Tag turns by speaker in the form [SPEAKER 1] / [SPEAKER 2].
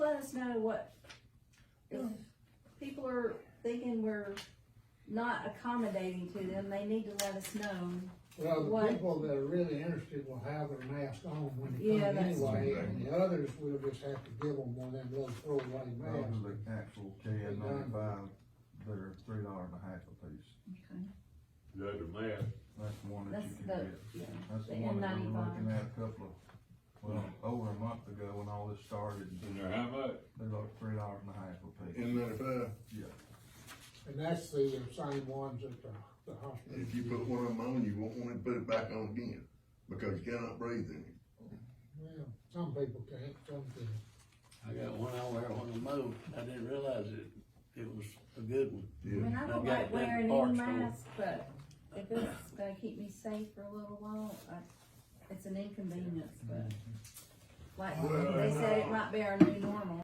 [SPEAKER 1] us know what, if people are thinking we're not accommodating to them, they need to let us know.
[SPEAKER 2] Well, the
[SPEAKER 1] What?
[SPEAKER 2] people that are really interested will have their mask on when they
[SPEAKER 1] Yeah,
[SPEAKER 2] come
[SPEAKER 1] that's
[SPEAKER 2] anyway,
[SPEAKER 3] true.
[SPEAKER 2] and the others will just have to give them one of them little throwaway masks.
[SPEAKER 3] Those are the actual KN ninety-five, they're three dollars and a half a piece.
[SPEAKER 4] The other mask,
[SPEAKER 3] That's the one that you
[SPEAKER 1] That's
[SPEAKER 3] can
[SPEAKER 1] the,
[SPEAKER 3] get.
[SPEAKER 1] yeah,
[SPEAKER 3] That's
[SPEAKER 1] the
[SPEAKER 3] the one
[SPEAKER 1] N
[SPEAKER 3] that we were looking
[SPEAKER 1] ninety-five.
[SPEAKER 3] at a couple of, well, over a month ago when all this started,
[SPEAKER 4] and they're how much?
[SPEAKER 3] they're like three dollars and a half a piece.
[SPEAKER 5] And then if, uh,
[SPEAKER 3] Yeah,
[SPEAKER 2] And that's the same ones at the, the hospital.
[SPEAKER 5] if you put one of them on, you won't want to put it back on again, because you cannot breathe in it.
[SPEAKER 2] Well, some people can't, some can.
[SPEAKER 6] I got one I wear on the move, I didn't realize it, it was a good one.
[SPEAKER 1] I mean, I don't
[SPEAKER 6] I've got
[SPEAKER 1] like
[SPEAKER 6] that
[SPEAKER 1] wearing any
[SPEAKER 6] box full.
[SPEAKER 1] mask, but if it's gonna keep me safe for a little while, I, it's an inconvenience, but. Like,
[SPEAKER 4] Well,
[SPEAKER 1] they said
[SPEAKER 4] no.
[SPEAKER 1] it might be our new normal.